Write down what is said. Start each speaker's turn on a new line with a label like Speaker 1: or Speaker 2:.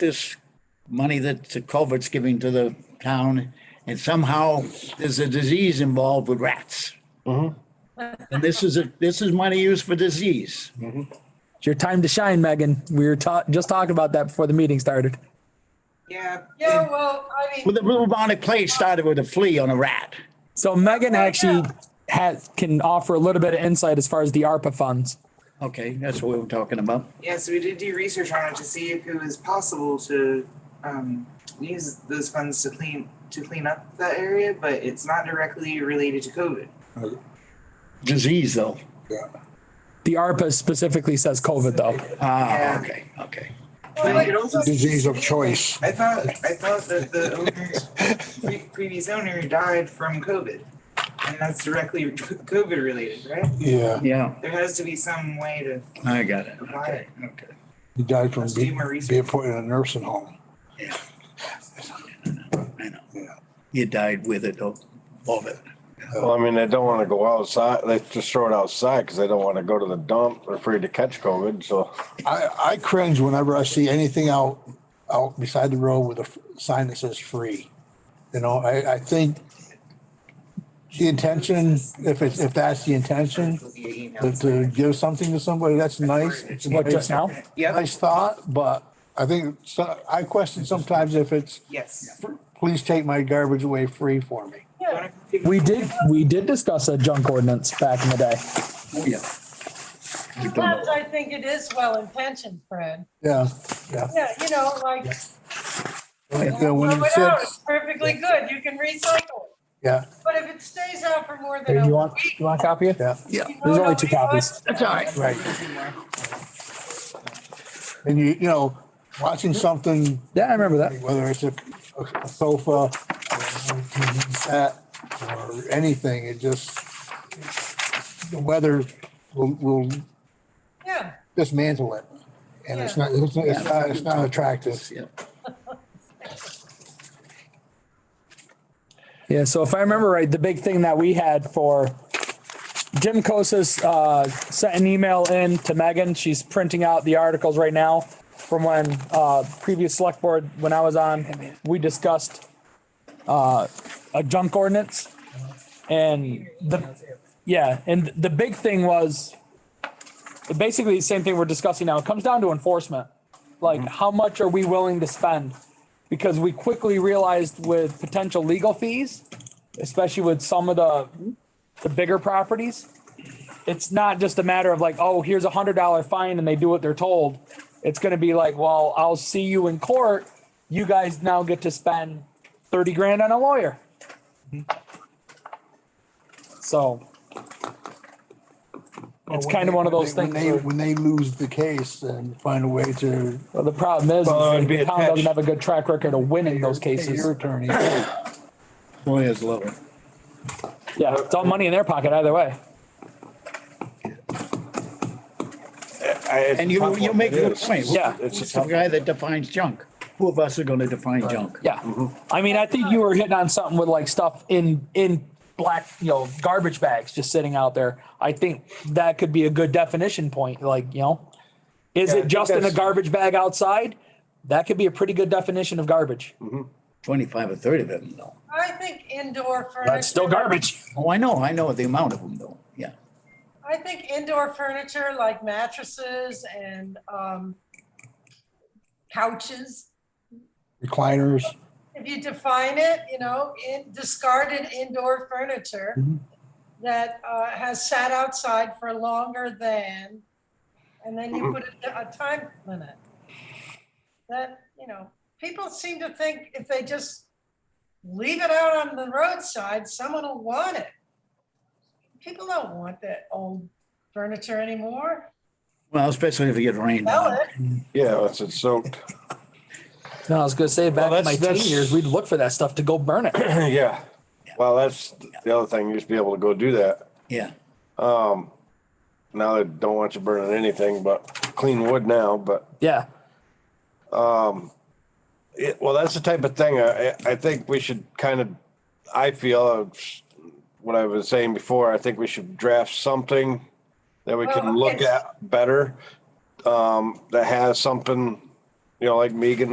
Speaker 1: this money that the culvert's giving to the town, and somehow there's a disease involved with rats. Mm-hmm. And this is, a this is money used for disease.
Speaker 2: It's your time to shine, Megan. We were ta- just talking about that before the meeting started.
Speaker 3: Yeah.
Speaker 4: Yeah, well, I
Speaker 1: Well,
Speaker 4: mean,
Speaker 1: the bubonic plague started with a flea on a rat.
Speaker 2: So Megan
Speaker 4: yeah.
Speaker 2: actually has, can offer a little bit of insight as far as the ARPA funds.
Speaker 1: Okay, that's what we were talking about.
Speaker 3: Yeah, so we did do research on it to see if it was possible to um, use those funds to clean to clean up that area, but it's not directly related to COVID.
Speaker 1: Disease, though.
Speaker 2: The ARPA specifically says COVID though.
Speaker 1: Ah,
Speaker 3: Yeah.
Speaker 1: okay, okay.
Speaker 3: But it also
Speaker 5: disease of choice.
Speaker 3: I thought I thought that the owner, pre- previous owner died from COVID, and that's directly COVID related, right?
Speaker 5: Yeah,
Speaker 1: Yeah,
Speaker 3: There has to be some way to
Speaker 1: I got it.
Speaker 3: apply it.
Speaker 1: Okay.
Speaker 5: he died from
Speaker 3: Let's do
Speaker 5: being,
Speaker 3: more research.
Speaker 5: being put in a nursing home.
Speaker 1: Yeah. I know.
Speaker 5: Yeah.
Speaker 1: You died with it, of of it.
Speaker 6: Well, I mean, they don't want to go outside. They just throw it outside because they don't want to go to the dump. They're afraid to catch COVID. So
Speaker 5: I, I cringe whenever I see anything out, out beside the road with a f- sign that says free. You know, I, I think the intention, if it's, if that's the intention, to, to give something to somebody, that's nice. It's a
Speaker 2: What,
Speaker 5: nice-
Speaker 2: just now?
Speaker 3: Yep.
Speaker 5: Nice thought, but I think, so, I question sometimes if it's,
Speaker 3: Yes.
Speaker 5: please take my garbage away free for me.
Speaker 4: yeah,
Speaker 2: We did, we did discuss a junk ordinance back in the day.
Speaker 1: Oh, yeah. You don't know.
Speaker 4: sometimes I think it is well intentioned, Fred.
Speaker 5: Yeah, yeah.
Speaker 4: Yeah, you know, like,
Speaker 5: You know,
Speaker 4: throw
Speaker 5: when it
Speaker 4: it out, it's
Speaker 5: says,
Speaker 4: perfectly good, you can recycle it.
Speaker 5: yeah,
Speaker 4: But if it stays out for more
Speaker 2: Hey,
Speaker 4: than a
Speaker 2: You want,
Speaker 4: week.
Speaker 2: you want a copy of it?
Speaker 5: yeah,
Speaker 1: Yeah,
Speaker 4: you know,
Speaker 2: There's only
Speaker 4: nobody
Speaker 2: two copies.
Speaker 4: wants-
Speaker 1: that's all right.
Speaker 5: right. And you, you know, watching something,
Speaker 2: Yeah, I remember that.
Speaker 5: whether it's a a sofa, or a TV set, or anything, it just, the weather will, will
Speaker 4: Yeah,
Speaker 5: dismantle it. And it's not, it's not, it's not- it's not attractive.
Speaker 1: Yeah.
Speaker 2: Yeah, so if I remember right, the big thing that we had for Jim Kosis uh, sent an email in to Megan. She's printing out the articles right now from when uh, previous select board, when I was on, we discussed uh, a junk ordinance. And the, yeah, and the big thing was basically the same thing we're discussing now. It comes down to enforcement. Like, how much are we willing to spend? because we quickly realized with potential legal fees, especially with some of the, the bigger properties, it's not just a matter of like, oh, here's a hundred dollar fine and they do what they're told. It's gonna be like, well, I'll see you in court. You guys now get to spend thirty grand on a lawyer. So it's kind of one of those
Speaker 5: When
Speaker 2: things.
Speaker 5: they,
Speaker 2: where-
Speaker 5: when they lose the case and find a way to
Speaker 2: Well, the problem is,
Speaker 6: Well, it'd be
Speaker 2: the town doesn't
Speaker 6: attached.
Speaker 2: have a good track record of winning those
Speaker 5: pay
Speaker 2: cases.
Speaker 5: your attorney,
Speaker 1: Lawyers love it.
Speaker 2: Yeah, it's all money in their pocket either way.
Speaker 6: I, it's
Speaker 1: And
Speaker 6: a
Speaker 1: you,
Speaker 6: tough
Speaker 1: you
Speaker 6: one.
Speaker 1: make
Speaker 6: It
Speaker 1: a good
Speaker 6: is.
Speaker 1: point.
Speaker 2: Yeah.
Speaker 6: It's a
Speaker 1: It's the
Speaker 6: tough
Speaker 1: guy that defines junk. Who of us are gonna define junk?
Speaker 2: Yeah.
Speaker 6: Mm-hmm.
Speaker 2: I mean, I think you were hitting on something with like stuff in, in black, you know, garbage bags just sitting out there. I think that could be a good definition point, like, you know, is
Speaker 6: Yeah, I
Speaker 2: it
Speaker 6: think
Speaker 2: just in a
Speaker 6: that's-
Speaker 2: garbage bag outside? That could be a pretty good definition of garbage.
Speaker 1: Twenty-five or thirty of them, though.
Speaker 4: I think indoor furniture.
Speaker 2: That's still garbage.
Speaker 1: Oh, I know, I know the amount of them, though. Yeah.
Speaker 4: I think indoor furniture like mattresses and um, couches,
Speaker 5: recliners.
Speaker 4: if you define it, you know, in discarded indoor furniture that uh, has sat outside for longer than, and then you put a, a time limit. That, you know, people seem to think if they just leave it out on the roadside, someone will want it. People don't want that old furniture anymore.
Speaker 1: Well, especially if you get rained
Speaker 4: Sell
Speaker 1: on.
Speaker 4: it.
Speaker 6: Yeah, once it's soaked.
Speaker 2: No, I was gonna say back in
Speaker 6: that's-
Speaker 2: my teen
Speaker 6: that's-
Speaker 2: years, we'd look for that stuff to go burn it.
Speaker 6: yeah. Well, that's the other thing. You used to be able to go do that.
Speaker 1: Yeah.
Speaker 6: Now they don't want you burning anything but clean wood now. But
Speaker 2: Yeah.
Speaker 6: it, well, that's the type of thing I, I think we should kind of, I feel uh, what I was saying before, I think we should draft something that we
Speaker 4: Well,
Speaker 6: can look
Speaker 4: okay.
Speaker 6: at better, um, that has something, you know, like Megan